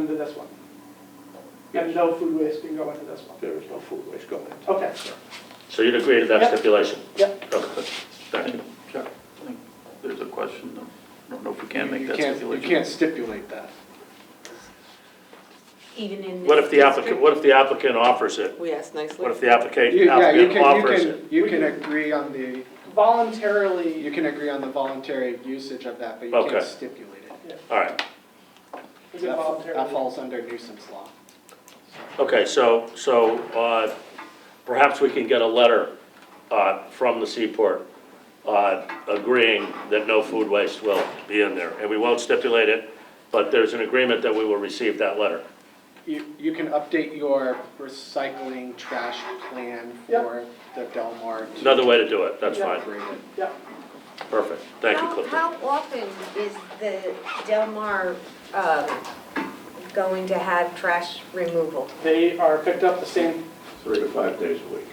into this one. And no food waste can go into this one. There is no food waste going into. Okay, So you'd agree to that Yep. stipulation? Yep. Okay, second. Chuck, I think there's a question, though. I don't know if we can make You that can't, you stipulation. can't stipulate that. even in this. What if the applicant, district? what if the applicant offers it? We asked nicely. What if the application, You- Yeah, you applicant can, you offers it? can, you can agree on the, you voluntarily, can agree on the voluntary usage of that, but you can't Okay. stipulate it. All right, is it That fa- That voluntarily? falls under nuisance law. okay, so, so, uh, perhaps we can get a letter, uh, from the Seaport, uh, agreeing that no food waste will be in there, and we won't stipulate it, but there's an agreement that we will receive that letter. You, you can update your recycling trash plan Yep. for the Delmar. to Another way to do it, that's fine, incorporate it. Yeah, perfect, thank you, How- Clifton. How often is the Del Mar um, going to have trash removal? they are picked up the same, Three to five days a week.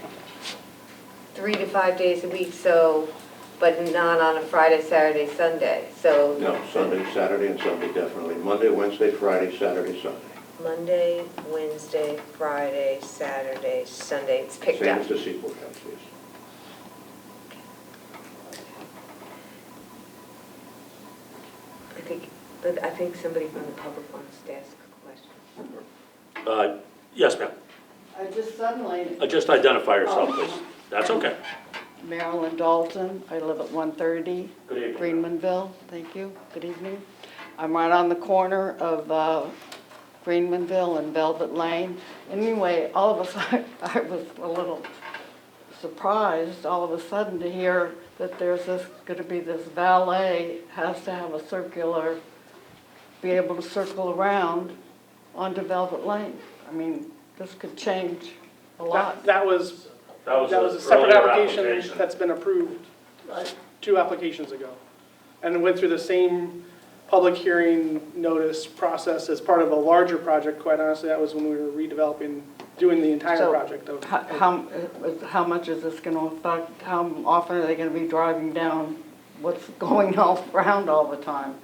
Three to five days a week, so, but not on a Friday, Saturday, Sunday. So No, Sunday, Saturday, and Sunday definitely. Monday, Wednesday, Friday, Saturday, Sunday. Monday, Wednesday, Friday, Saturday, Sunday, it's picked Same up. as the Seaport House is. I think, but I think somebody from the public wants to ask a question. Uh, yes, ma'am, I just suddenly, Uh, just identify Oh. yourself, please, that's okay. Marilyn Dalton, I live at 130 Good evening. Greenmanville, thank you, good evening. I'm right on the corner of uh, Greenmanville and Velvet Lane. Anyway, all of us, I was a little surprised all of a sudden to hear that there's this, gonna be this valet has to have a circular, be able to circle around onto Velvet Lane. I mean, this could change a lot. that that was, That was that an was a separate earlier application that's been approved two applications ago. And went through the same public hearing notice process as part of a larger project. Quite honestly, that was when we were redeveloping, doing the entire So, project of. How, how- uh, how much is this gonna affect, how often are they gonna be driving down what's going all around all the time?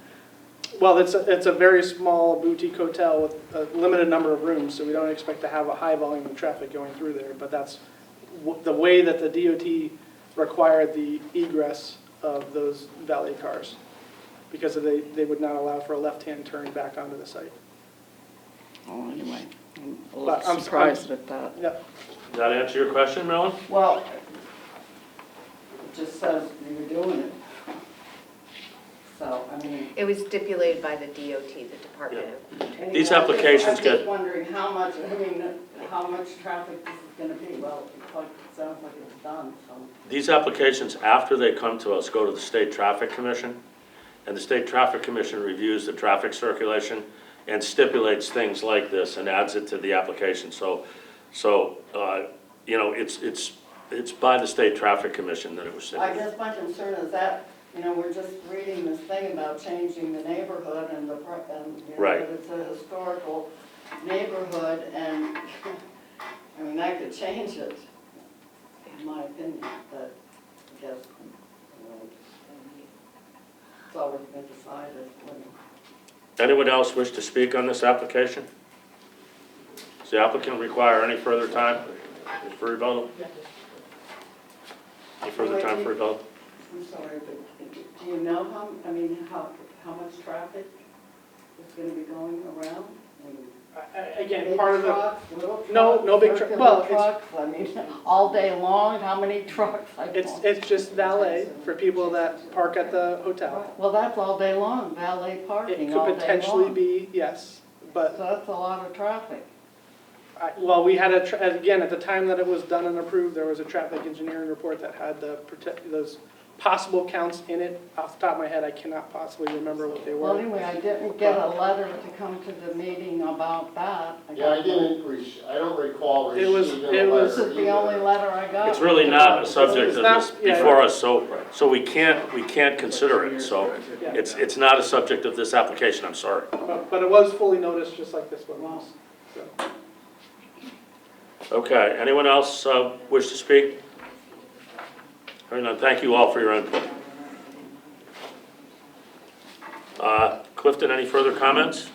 Well, it's, a- it's a very small boutique hotel with a limited number of rooms, so we don't expect to have a high volume of traffic going through there, but that's w- the way that the DOT required the egress of those valet cars, because they, they would not allow for a left-hand turn back onto the site. Oh, anyway, I'm But a I'm- little I'm- surprised at that. Yep, Does that answer your question, Marilyn? Well, it just says you were doing it. So, I mean. It was stipulated by the DOT, the Department of These anyway, I'm just- applications I'm get- just wondering how much, I mean, how much traffic this is gonna be, well, it's like, it sounds like it's done, so. These applications, after they come to us, go to the State Traffic Commission, and the State Traffic Commission reviews the traffic circulation and stipulates things like this and adds it to the application. So, so, uh, you know, it's, it's, it's by the State Traffic Commission that it was I stipulated. guess my concern is that, you know, we're just reading this thing about changing the neighborhood and the, pro- and, you know, Right. that it's a historical neighborhood, and, I mean, that could change it, in my opinion, but I guess, you know, it's always been decided when Anyone else wish to speak on this application? Does the applicant require any further time for rebuttal? Any further time for rebuttal? I'm sorry, but do you know how, I mean, how, how much traffic is gonna be going around? I mean, I- I- again, Big part of the, trucks, little No, trucks, no big truck- circular well, it's- trucks, I mean, all day long, how many trucks? I it's, don't- it's just valet for people that park at the hotel. Well, that's all day long, valet It parking all day could long. potentially be, uh, yes, but So that's a lot of traffic. I- Well, we had a, tra- again, at the time that it was done and approved, there was a traffic engineering report that had the, prote- those possible counts in it. Off the top of my head, I cannot possibly remember what they Well, were. anyway, I didn't get a letter to come to the meeting about that. Yeah, I got- didn't, rec- I don't recall It was- receiving a it was- This letter is the only either. letter I got. It's really not a subject of this Yeah. before us, so, so we can't, we can't consider it, so it's, it's not a subject of this application, I'm sorry. But but it was fully noticed, just like this one was. So, Okay, anyone else uh, wish to speak? Hearing none, thank you all for your input. Uh, Clifton, any further comments?